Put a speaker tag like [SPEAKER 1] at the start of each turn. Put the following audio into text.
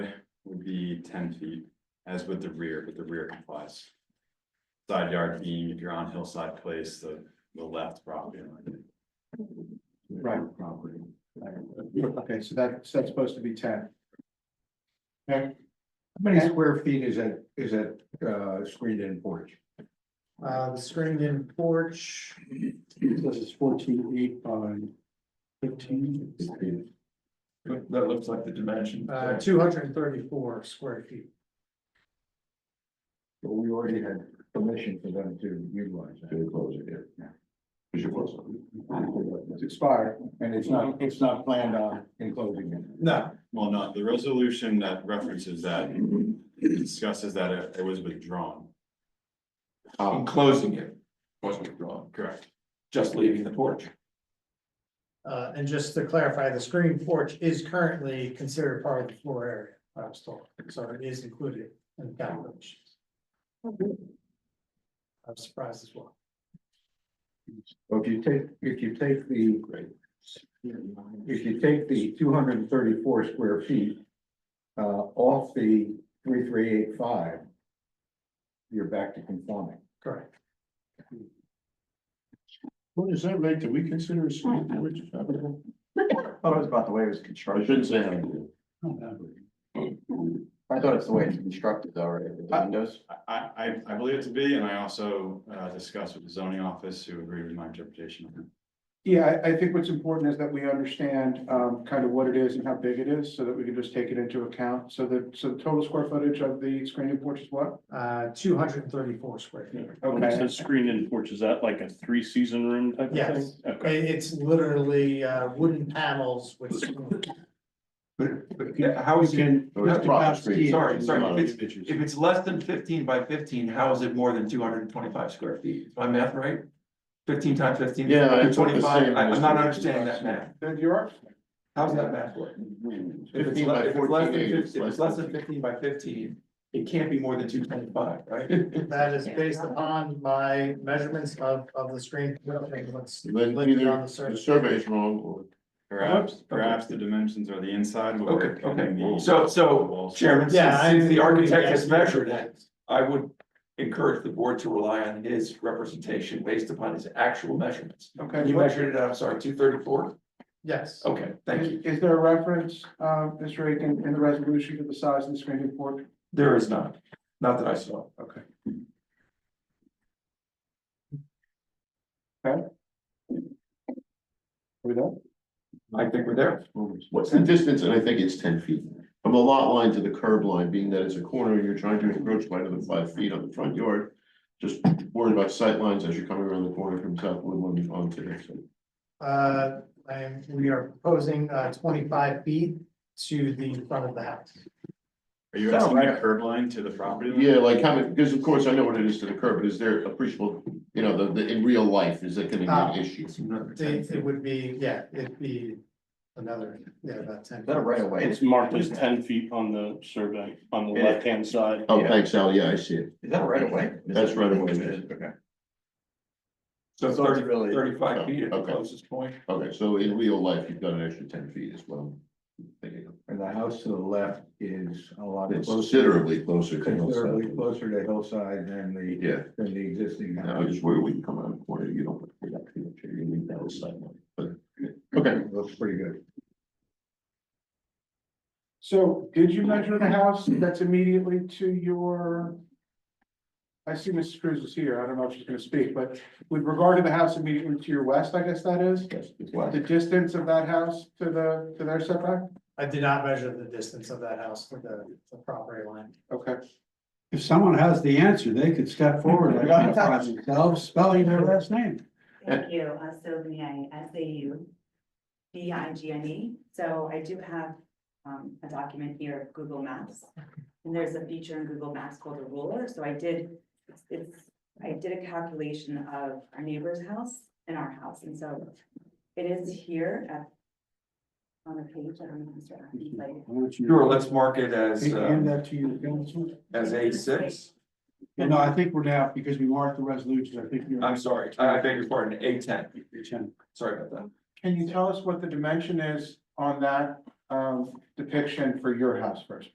[SPEAKER 1] would be ten feet, as with the rear, but the rear complies. Side yard being if you're on hillside place, the, the left property line.
[SPEAKER 2] Right.
[SPEAKER 1] Property.
[SPEAKER 2] Okay, so that, so that's supposed to be ten. Okay. How many square feet is that, is that, uh, screened in porch?
[SPEAKER 3] Uh, the screened in porch,
[SPEAKER 2] This is fourteen eight by fifteen.
[SPEAKER 4] That looks like the dimension.
[SPEAKER 3] uh, two hundred and thirty-four square feet.
[SPEAKER 2] But we already had permission for them to utilize that.
[SPEAKER 4] Very close, yeah. Is your close?
[SPEAKER 2] It's expired, and it's not, it's not planned on enclosing it.
[SPEAKER 3] No.
[SPEAKER 1] Well, no, the resolution that references that discusses that it- it was withdrawn,
[SPEAKER 4] Um, closing it, wasn't withdrawn,
[SPEAKER 1] correct?
[SPEAKER 4] just leaving the porch.
[SPEAKER 3] Uh, and just to clarify, the screened porch is currently considered part of the floor area, I was told, so it is included in the calculations. I'm surprised as well.
[SPEAKER 2] Well, If you take, if you take the. If you take the two hundred and thirty-four square feet. Uh, off the three, three, eight, five. You're back to conforming.
[SPEAKER 3] Correct.
[SPEAKER 4] What does that make? Do we consider a screen porch habitable?
[SPEAKER 5] Thought it was about the way it was
[SPEAKER 4] I
[SPEAKER 5] constructed.
[SPEAKER 4] shouldn't say habitable.
[SPEAKER 5] I thought it's the way it's constructed though, right, with the windows.
[SPEAKER 1] I, I, I believe it to be, and I also, uh, discussed with the zoning office who agreed with my interpretation of it.
[SPEAKER 2] Yeah, I, I think what's important is that we understand, um, kind of what it is and how big it is, so that we can just take it into account. So the, so the total square footage of the screening porch is what?
[SPEAKER 3] Uh, two hundred and thirty-four square feet.
[SPEAKER 6] When it says screened in porch, is that like a three season room type of thing?
[SPEAKER 3] Yes.
[SPEAKER 6] Okay,
[SPEAKER 3] It- it's literally, uh, wooden panels with. screen-
[SPEAKER 4] But, but yeah, how is it?
[SPEAKER 2] Oh,
[SPEAKER 5] Or it's proper screen.
[SPEAKER 4] Sorry, sorry, if it's,
[SPEAKER 2] It's
[SPEAKER 4] if it's less than fifteen by fifteen, how is it more than two hundred and twenty-five square feet? Is my math right? Fifteen times fifteen?
[SPEAKER 6] Yeah, I thought the
[SPEAKER 4] Twenty-five,
[SPEAKER 6] same
[SPEAKER 4] I-
[SPEAKER 6] was-
[SPEAKER 4] I'm not understanding that math.
[SPEAKER 2] Then you are,
[SPEAKER 4] How's that math work? If it's
[SPEAKER 5] 15
[SPEAKER 4] le-
[SPEAKER 5] by
[SPEAKER 4] if it's less than
[SPEAKER 5] 14,
[SPEAKER 4] 15
[SPEAKER 5] it's
[SPEAKER 4] if it's
[SPEAKER 5] less
[SPEAKER 4] less than fifteen by fifteen, it can't be more than two twenty-five, right?
[SPEAKER 3] That is based upon my measurements of, of the screen. What's
[SPEAKER 6] Then
[SPEAKER 3] listed
[SPEAKER 6] either
[SPEAKER 3] on the
[SPEAKER 6] the
[SPEAKER 3] survey.
[SPEAKER 6] survey's wrong or
[SPEAKER 1] Perhaps, perhaps the dimensions are the inside. but we're
[SPEAKER 4] Okay, okay.
[SPEAKER 1] cutting the-
[SPEAKER 4] So,
[SPEAKER 1] the
[SPEAKER 4] so
[SPEAKER 1] walls.
[SPEAKER 4] Chairman,
[SPEAKER 3] Yeah,
[SPEAKER 4] since
[SPEAKER 3] I-
[SPEAKER 4] since the architect has measured it, I would encourage the board to rely on his representation based upon his actual measurements.
[SPEAKER 2] okay.
[SPEAKER 4] You measured it, I'm sorry, two thirty-four?
[SPEAKER 3] Yes.
[SPEAKER 4] Okay, thank you.
[SPEAKER 2] Is, is there a reference, uh, Mr. Aiken, in the resolution to the size of the screening porch?
[SPEAKER 4] There is not, not that I saw.
[SPEAKER 2] Okay.
[SPEAKER 4] I think we're there.
[SPEAKER 7] What's the distance? And I think it's ten feet from the lot line to the curb line, being that it's a corner, you're trying to encroach by another five feet on the front yard. Just worried about sight lines as you're coming around the corner from South Woodland onto this.
[SPEAKER 3] Uh, and we are proposing uh twenty-five feet to the front of the house.
[SPEAKER 1] Are you asking the curb line to the property? line?
[SPEAKER 7] Yeah, like how many, because of course I know what it is to the curb, but is there appreciable, you know, the, the, in real life, is that gonna be an issue?
[SPEAKER 4] It's another
[SPEAKER 3] It
[SPEAKER 4] 10.
[SPEAKER 3] it would be, yeah, it'd be another, yeah, about ten.
[SPEAKER 5] Is that a right away?
[SPEAKER 6] it's marked as ten feet on the survey, on the
[SPEAKER 5] Yeah.
[SPEAKER 6] left hand side.
[SPEAKER 7] Oh, thanks, Al. Yeah, I see it.
[SPEAKER 5] Is that right away?
[SPEAKER 7] That's right away.
[SPEAKER 5] Okay. So
[SPEAKER 4] So
[SPEAKER 5] it's
[SPEAKER 4] 30
[SPEAKER 5] really-
[SPEAKER 4] 35 feet at the
[SPEAKER 7] Okay.
[SPEAKER 4] closest point.
[SPEAKER 7] Okay, so in real life, you've got an extra ten feet as well.
[SPEAKER 2] And the house to the left is a lot
[SPEAKER 7] It's Considerably closer. to
[SPEAKER 2] considerably
[SPEAKER 7] hillside.
[SPEAKER 2] closer to hillside than the,
[SPEAKER 7] Yeah.
[SPEAKER 2] than the existing
[SPEAKER 7] Yeah, I
[SPEAKER 2] house.
[SPEAKER 7] just worry when you come around the corner, you don't. you don't feel it, You leave that aside, but, okay.
[SPEAKER 2] Looks pretty good. So did you measure the house that's immediately to your? I see Mrs. Cruz is here. I don't know if she's gonna speak, but with regard to the house immediately to your west, I guess that is,
[SPEAKER 5] Yes, it's wide.
[SPEAKER 2] the distance of that house to the, to their setback?
[SPEAKER 3] I did not measure the distance of that house to the the property line.
[SPEAKER 2] Okay.
[SPEAKER 8] If someone has the answer, they could step forward and identify themselves, spelling their last name.
[SPEAKER 9] Thank you, uh, Sylviane, S A U V I G N E. So I do have um, a document here of Google Maps. And there's a feature in Google Maps called a ruler, so I did, it's, I did a calculation of our neighbor's house and our house, and so it is here at on the page, I don't know, Mr. Atkins, like.
[SPEAKER 8] Why don't you-
[SPEAKER 4] Sure, let's mark it as,
[SPEAKER 8] Hand
[SPEAKER 4] uh,
[SPEAKER 8] that to your council.
[SPEAKER 4] as A six.
[SPEAKER 8] No, I think we're now, because we marked the resolutions, I think you're.
[SPEAKER 4] I'm sorry, I I beg your pardon, A ten.
[SPEAKER 8] Chen.
[SPEAKER 4] Sorry about that.
[SPEAKER 2] Can you tell us what the dimension is on that um depiction for your house first?